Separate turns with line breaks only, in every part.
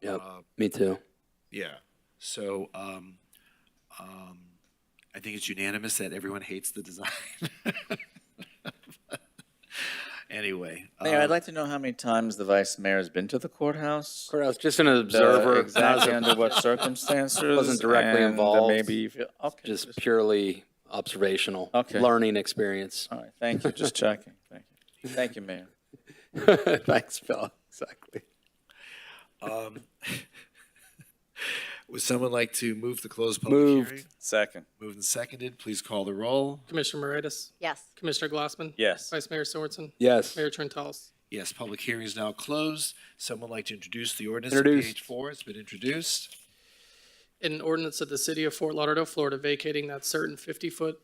Yep.
Uh,
Me too.
Yeah. So um, um, I think it's unanimous that everyone hates the design. anyway,
Mayor,
uh,
Um,
I'd like to know how many times the vice mayor has been to the courthouse.
I was just an
the-
observer,
Exactly
not
under what circumstances.
Wasn't directly
and the
involved.
Maybe, you feel- okay,
just
just,
purely observational,
Okay.
learning experience.
all right, thank you, just checking, thank you. Thank you, Mayor.
Thanks, Phil. Exactly.
would someone like to move to close public
Moved.
hearing?
Second,
Moved and seconded. Please call the roll.
Commissioner Moritas?
Yes.
Commissioner Glassman?
yes,
Vice Mayor Sorenson?
Yes.
Mayor Trentalis?
Yes, public hearing is now closed. Someone like to introduce the ordinance on
Introduced.
page four? It's been introduced.
An ordinance of the city of Fort Lauderdale, Florida vacating that certain fifty-foot,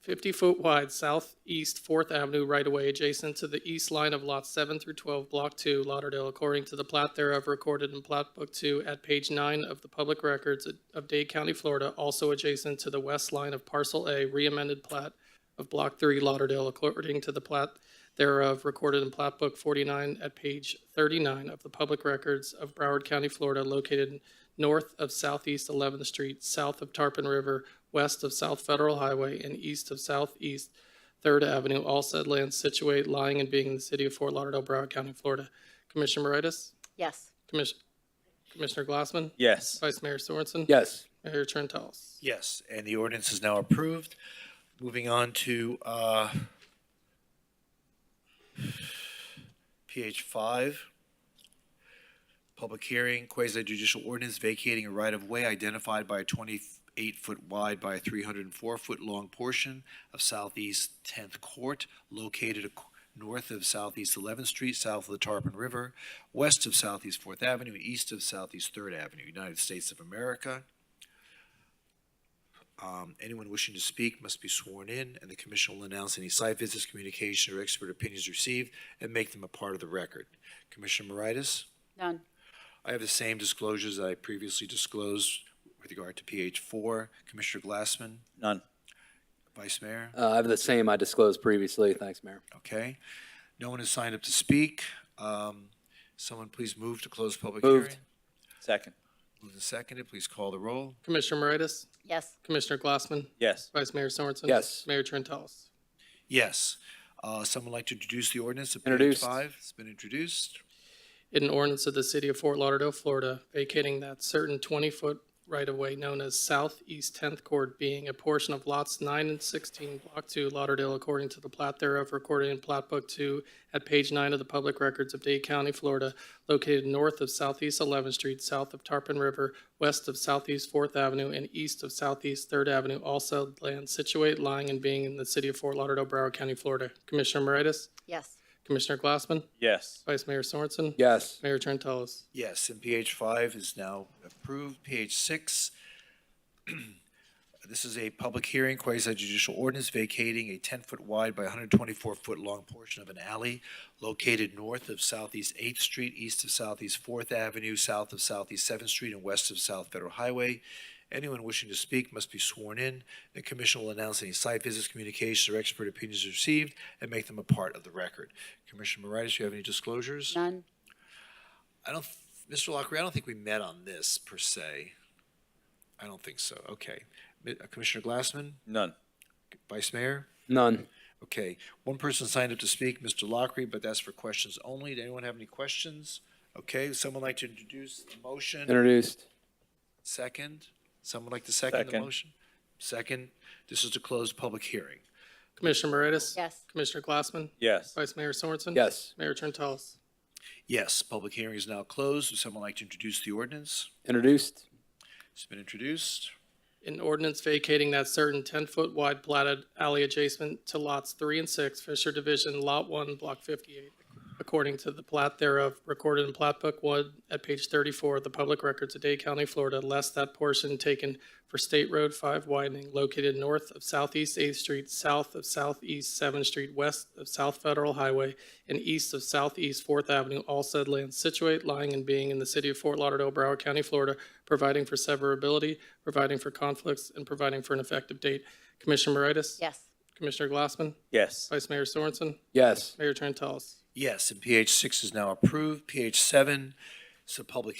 fifty-foot wide southeast Fourth Avenue right-of-way adjacent to the east line of lots seven through twelve, block two, Lauderdale, according to the plat thereof recorded in plat book two at page nine of the public records of Dade County, Florida, also adjacent to the west line of parcel A, re-amended plat of block three, Lauderdale, according to the plat thereof recorded in plat book 49 at page 39 of the public records of Broward County, Florida, located north of southeast 11th Street, south of Tarpon River, west of South Federal Highway, and east of southeast 3rd Avenue, all said lands situate, lying, and being in the city of Fort Lauderdale, Broward County, Florida. Commissioner Moritas?
Yes.
Commis- Commissioner Glassman?
yes.
Vice Mayor Sorensen?
Yes.
Mayor Trentalis?
Yes, and the ordinance is now approved. Moving on to uh, PH 5, public hearing, quasi-judicial ordinance vacating a right-of-way identified by a 28-foot wide by a 304-foot long portion of Southeast 10th Court located ac- north of Southeast 11th Street, south of the Tarpon River, west of Southeast 4th Avenue, and east of Southeast 3rd Avenue, United States of America. Um, Anyone wishing to speak must be sworn in, and the commission will announce any site visits, communication, or expert opinions received and make them a part of the record. Commissioner Moritas,
None.
I have the same disclosures I previously disclosed with regard to PH four. Commissioner Glassman,
None,
Vice Mayor,
Uh, I have the same I disclosed previously. Thanks, Mayor.
okay? No one has signed up to speak. Um, Someone please move to close public hearing.
Moved.
second,
Moved and seconded, please call the roll.
Commissioner Moritas?
Yes.
Commissioner Glassman?
yes.
Vice Mayor Sorensen?
Yes.
Mayor Trentalis?
Yes. Uh, Someone like to introduce the ordinance of PH
Introduced.
five? It's been introduced.
in an ordinance of the city of Fort Lauderdale, Florida, vacating that certain 20-foot right-of-way known as Southeast 10th Court, being a portion of lots 9 and 16, Block 2, Lauderdale, according to the plat thereof recorded in Plat Book 2 at page 9 of the public records of Dade County, Florida, located north of Southeast 11th Street, south of Tarpon River, west of Southeast 4th Avenue, and east of Southeast 3rd Avenue, also land situate, lying, and being in the city of Fort Lauderdale, Broward County, Florida. Commissioner Moritas?
Yes.
Commissioner Glassman?
Yes,
Vice Mayor Sorensen?
Yes.
Mayor Trentalis?
Yes, and PH five is now approved. PH six, this is a public hearing, quasi-judicial ordinance vacating a ten-foot wide by hundred twenty-four foot long portion of an alley located north of Southeast Eighth Street, east of Southeast Fourth Avenue, south of Southeast Seventh Street, and west of South Federal Highway. Anyone wishing to speak must be sworn in. The commission will announce any site visits, communications, or expert opinions received and make them a part of the record. Commissioner Moritas, you have any disclosures?
None.
I don't, th- Mr. Lockery, I don't think we met on this per se. I don't think so. Okay. Mi- uh, Commissioner Glassman,
none,
Vice Mayor?
None.
Okay. One person signed up to speak, Mr. Lockery, but that's for questions only. Does anyone have any questions? Okay, would someone like to introduce the motion?
Introduced.
Second? Someone like to second the
Second.
motion? Second, this is to close public hearing.
Commissioner Moritas?
Yes.
Commissioner Glassman?
yes,
Vice Mayor Sorensen?
Yes.
Mayor Trentalis?
Yes, public hearing is now closed. Would someone like to introduce the ordinance?
Introduced.
It's been introduced.
An ordinance vacating that certain 10-foot wide platted alley adjacent to lots 3 and 6, Fisher Division, Lot 1, Block 58, according to the plat thereof recorded in Plat Book 1 at page 34 of the public records of Dade County, Florida, less that portion taken for State Road 5 widening located north of Southeast 8th Street, south of Southeast 7th Street, west of South Federal Highway, and east of Southeast 4th Avenue, all said lands situate, lying, and being in the city of Fort Lauderdale, Broward County, Florida, providing for severability, providing for conflicts, and providing for an effective date. Commissioner Moritas?
Yes.
Commissioner Glassman?
yes,
Vice Mayor Sorensen?
Yes.
Mayor Trentalis?
Yes, and PH six is now approved. PH seven, it's a public